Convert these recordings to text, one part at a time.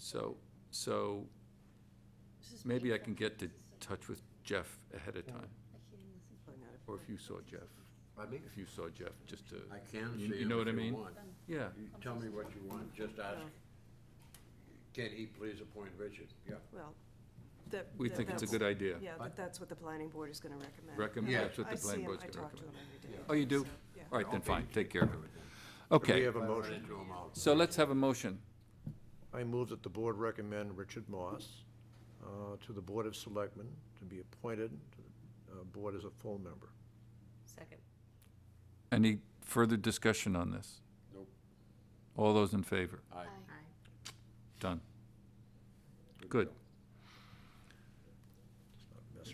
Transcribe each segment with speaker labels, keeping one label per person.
Speaker 1: So, so maybe I can get to touch with Jeff ahead of time, or if you saw Jeff,
Speaker 2: Pardon me?
Speaker 1: if you saw Jeff, just to.
Speaker 2: I can
Speaker 1: you-
Speaker 2: see
Speaker 1: You
Speaker 2: him
Speaker 1: know
Speaker 2: if
Speaker 1: what I
Speaker 2: you
Speaker 1: mean?
Speaker 2: want.
Speaker 1: Yeah,
Speaker 2: You tell me what you want, just
Speaker 1: Uh,
Speaker 2: ask,
Speaker 3: Oh.
Speaker 2: can he please appoint Richard? Yeah.
Speaker 4: Well, that.
Speaker 1: we
Speaker 4: that-
Speaker 1: think it's a
Speaker 4: that's-
Speaker 1: good idea.
Speaker 4: Yeah, but that's what the planning board is gonna recommend.
Speaker 1: Recommend,
Speaker 2: Yeah.
Speaker 1: that's what the planning board's
Speaker 4: I
Speaker 1: gonna
Speaker 4: see him, I talk to him
Speaker 1: recommend.
Speaker 4: every day.
Speaker 1: Oh, you do?
Speaker 4: So, yeah.
Speaker 1: All right, then, fine, take care of it.
Speaker 5: We
Speaker 1: Okay,
Speaker 5: have a motion.
Speaker 1: so let's have a motion.
Speaker 5: I move that the board recommend Richard Moss uh, to the Board of Selectmen to be appointed to the uh, board as a full member.
Speaker 3: Second.
Speaker 1: Any further discussion on this?
Speaker 2: Nope.
Speaker 1: All those in favor?
Speaker 2: Aye.
Speaker 1: Done. Good.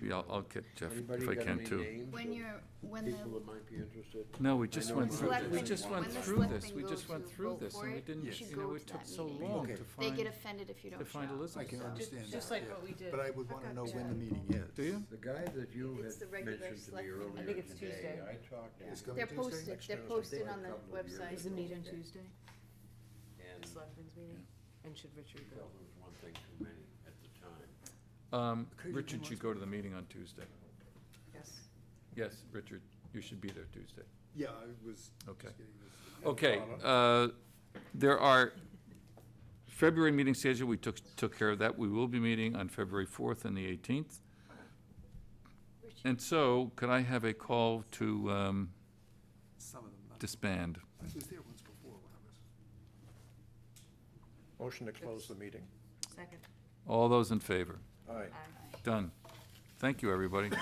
Speaker 1: Maybe I'll, I'll get Jeff
Speaker 2: Anybody
Speaker 1: if I
Speaker 2: got
Speaker 1: can
Speaker 2: any
Speaker 1: too.
Speaker 2: names
Speaker 3: When
Speaker 2: of
Speaker 3: you're, when the.
Speaker 2: People that might be interested?
Speaker 1: No, we just
Speaker 2: know
Speaker 1: went
Speaker 2: it's
Speaker 1: through,
Speaker 2: not
Speaker 1: we
Speaker 2: just
Speaker 1: just
Speaker 2: one.
Speaker 1: went
Speaker 2: When the
Speaker 1: through this,
Speaker 3: selectmen
Speaker 1: we
Speaker 3: go
Speaker 1: just went
Speaker 3: to
Speaker 1: through
Speaker 3: vote
Speaker 1: this,
Speaker 3: for
Speaker 1: and we
Speaker 3: it,
Speaker 1: didn't,
Speaker 3: you should
Speaker 1: you know,
Speaker 3: go
Speaker 1: it
Speaker 3: to that
Speaker 1: took so
Speaker 3: meeting.
Speaker 1: long
Speaker 6: Okay.
Speaker 1: to
Speaker 3: They
Speaker 1: find,
Speaker 3: get offended if you
Speaker 1: to
Speaker 3: don't show
Speaker 1: find
Speaker 3: up.
Speaker 1: Elizabeth.
Speaker 6: understand
Speaker 7: Just like what we did.
Speaker 6: But I would want to know when the meeting
Speaker 1: Do
Speaker 6: is.
Speaker 1: you?
Speaker 2: The guy that you
Speaker 3: It's the
Speaker 2: had
Speaker 3: regular
Speaker 2: mentioned to me
Speaker 3: selectmen. I
Speaker 2: earlier
Speaker 7: think it's
Speaker 2: today,
Speaker 7: Tuesday.
Speaker 2: I talked to him.
Speaker 6: It's coming
Speaker 3: They're
Speaker 6: Tuesday?
Speaker 3: posted,
Speaker 6: Next
Speaker 3: they're
Speaker 6: Tuesday?
Speaker 3: posted on the
Speaker 2: Couple of years ago.
Speaker 3: website.
Speaker 7: on Tuesday?
Speaker 2: And he
Speaker 7: Selectmen's meeting? And should Richard
Speaker 2: felt it was one thing too many at the time.
Speaker 1: Um, Richard should go to the meeting on Tuesday.
Speaker 7: Yes.
Speaker 1: Yes, Richard, you should be there Tuesday.
Speaker 6: Yeah, I was
Speaker 1: Okay.
Speaker 6: just getting this.
Speaker 1: Okay, uh, there are, February meeting schedule, we took, took care of that. We will be meeting on February 4th and the 18th. And so, could I have a call to um,
Speaker 6: Some of them.
Speaker 1: disband?
Speaker 6: I was there once before when I was.
Speaker 5: Motion to close the meeting.
Speaker 7: Second.
Speaker 1: All those in favor?
Speaker 5: Aye.
Speaker 1: Done. Thank you, everybody.